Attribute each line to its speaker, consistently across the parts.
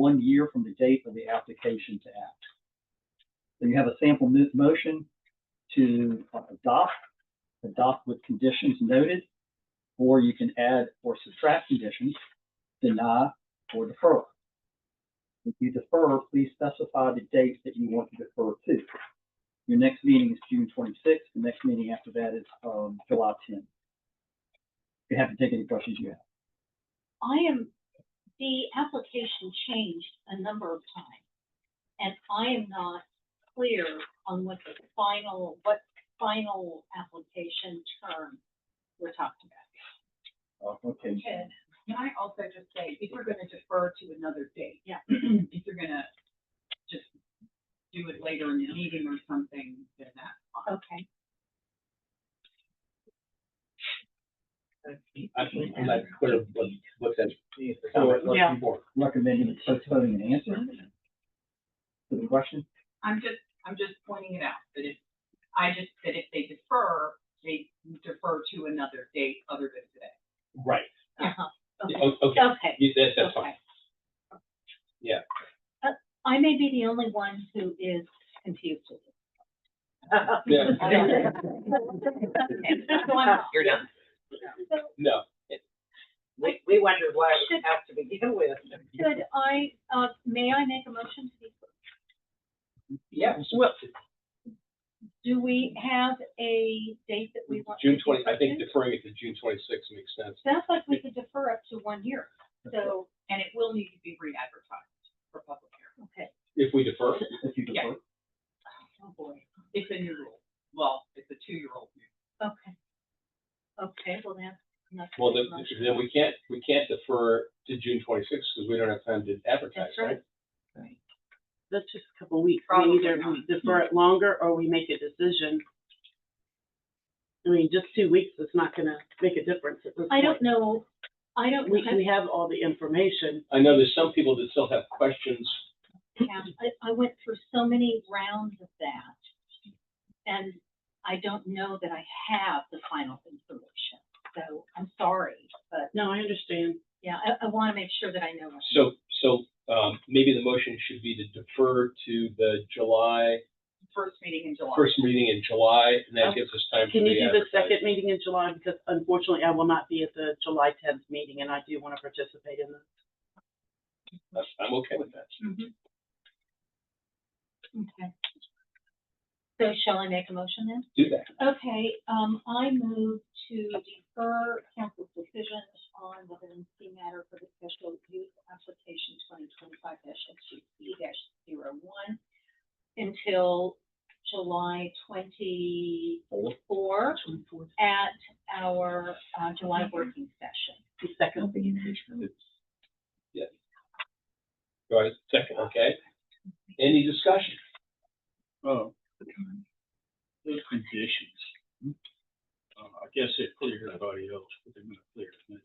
Speaker 1: one year from the date of the application to act. Then you have a sample mo- motion to uh, adopt, adopt with conditions noted, or you can add or subtract conditions, deny or defer. If you defer, please specify the date that you want to defer to. Your next meeting is June twenty-sixth, the next meeting after that is, um, July tenth. You have to take any questions you have.
Speaker 2: I am, the application changed a number of times, and I am not clear on what the final, what final application term we're talking about.
Speaker 1: Oh, Okay,
Speaker 3: Ted, can I also just say, if you're gonna defer to another date?
Speaker 2: Yeah.
Speaker 3: If you're gonna just do it later in the meeting or something, then that.
Speaker 2: Okay.
Speaker 4: I think I'm not clear what, what that's, the
Speaker 1: So,
Speaker 4: comment was
Speaker 3: Yeah.
Speaker 4: before.
Speaker 1: recommending postponing an answer to the question?
Speaker 3: I'm just, I'm just pointing it out, that if, I just, that if they defer, they defer to another date other than today.
Speaker 4: Right,
Speaker 2: Uh-huh.
Speaker 4: Yeah,
Speaker 2: Okay,
Speaker 4: o- okay,
Speaker 2: okay.
Speaker 4: Yeah, that, that's fine.
Speaker 2: okay.
Speaker 4: Yeah.
Speaker 2: Uh, I may be the only one who is confused with it.
Speaker 4: Yeah.
Speaker 2: Oh. Okay, so I'm not-
Speaker 5: You're done.
Speaker 4: No,
Speaker 5: We, we wondered why it was have to begin with.
Speaker 2: Should I, uh, may I make a motion to
Speaker 4: yeah,
Speaker 5: Well,
Speaker 2: Do we have a date that we want? to
Speaker 4: June twenty, I think
Speaker 2: defer to?
Speaker 4: deferring it to June twenty-sixth makes sense.
Speaker 2: Sounds like we could defer up to one year, so,
Speaker 3: And it will need to be re-advertised for public hearing.
Speaker 2: okay,
Speaker 4: If we defer,
Speaker 1: If you defer,
Speaker 2: oh boy,
Speaker 3: It's a new rule. Well, it's a two-year-old new.
Speaker 2: okay. Okay, well, that's. enough of
Speaker 4: well,
Speaker 2: this
Speaker 4: then,
Speaker 2: motion.
Speaker 4: then we can't, we can't defer to June twenty-sixth because we don't have time to advertise,
Speaker 2: That's
Speaker 4: right?
Speaker 2: right.
Speaker 6: That's just a couple weeks.
Speaker 3: Probably
Speaker 6: We either
Speaker 3: not.
Speaker 6: defer it longer or we make a decision. I mean, just two weeks is not gonna make a difference at this point.
Speaker 2: I don't know, I don't,
Speaker 6: We,
Speaker 2: know.
Speaker 6: we have all the information.
Speaker 4: I know there's some people that still have questions.
Speaker 2: I, I went through so many rounds of that, and I don't know that I have the final information, so I'm sorry, but,
Speaker 6: No, I understand.
Speaker 2: yeah, I, I wanna make sure that I know. what-
Speaker 4: So, so, um, maybe the motion should be to defer to the July,
Speaker 3: First meeting in July.
Speaker 4: first meeting in July, and that gives us time to
Speaker 6: Can you do the
Speaker 4: re-advertise.
Speaker 6: second meeting in July? Because unfortunately, I will not be at the July tenth meeting and I do want to participate in this.
Speaker 4: I'm okay with that.
Speaker 2: Mhm. Okay. So shall I make a motion then?
Speaker 4: Do that.
Speaker 2: Okay, um, I move to defer council's decision on the vacancy matter for the special use application twenty twenty-five dash dash zero one until July twenty-four at our, uh, July working session.
Speaker 6: The second.
Speaker 4: Go ahead, second, okay? Any discussion?
Speaker 7: Oh. Those conditions. Uh, I guess it cleared everybody else, but they're not clear to me.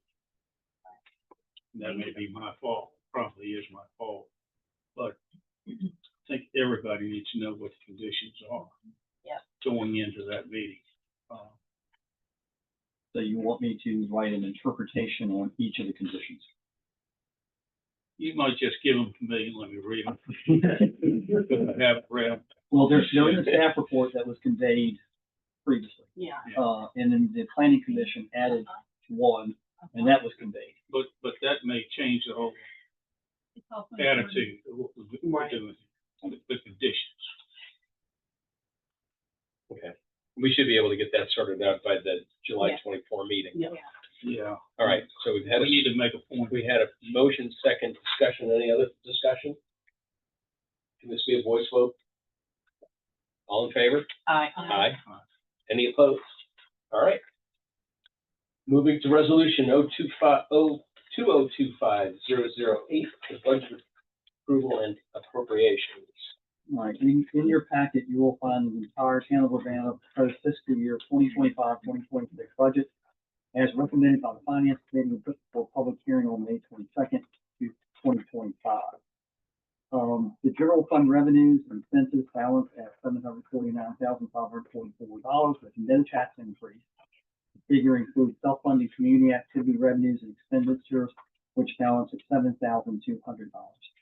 Speaker 7: That may be my fault, probably is my fault, but I think everybody needs to know what the conditions are.
Speaker 6: Yeah.
Speaker 7: Going into that meeting. Uh,
Speaker 1: so you want me to write an interpretation on each of the conditions?
Speaker 7: You might just give them to me and let me read them. Because I have read 'em.
Speaker 1: Well, there's no in the staff report that was conveyed previously,
Speaker 6: Yeah.
Speaker 7: Yeah.
Speaker 1: uh, and then the planning commission added one, and that was conveyed.
Speaker 7: but, but that may change the whole
Speaker 2: It's also-
Speaker 7: attitude of what we're
Speaker 6: Right.
Speaker 7: doing, the the conditions.
Speaker 4: Okay. We should be able to get that sorted out by the July
Speaker 2: Yeah.
Speaker 4: twenty-four meeting.
Speaker 6: Yeah.
Speaker 7: Yeah.
Speaker 4: All right, so we've had,
Speaker 7: We
Speaker 4: a-
Speaker 7: need to make a point.
Speaker 4: we had a motion, second discussion, any other discussion? Can this be a voice vote? All in favor?
Speaker 3: Aye.
Speaker 4: Aye. Any opposed? All right. Moving to resolution oh two five, oh, two oh two five zero zero eight, the budget approval and appropriations.
Speaker 1: All right, in, in your packet, you will find the entire town of Urbana proposed fiscal year 2025-2026 budget as recommended by the finance committee and put for public hearing on May twenty-second to twenty twenty-five. Um, the general fund revenues and expenses balance at seven hundred forty-nine thousand five hundred forty-four dollars with no tax increase. The Figure includes self-funding community activity revenues and expenditures, which balance at seven thousand two hundred dollars.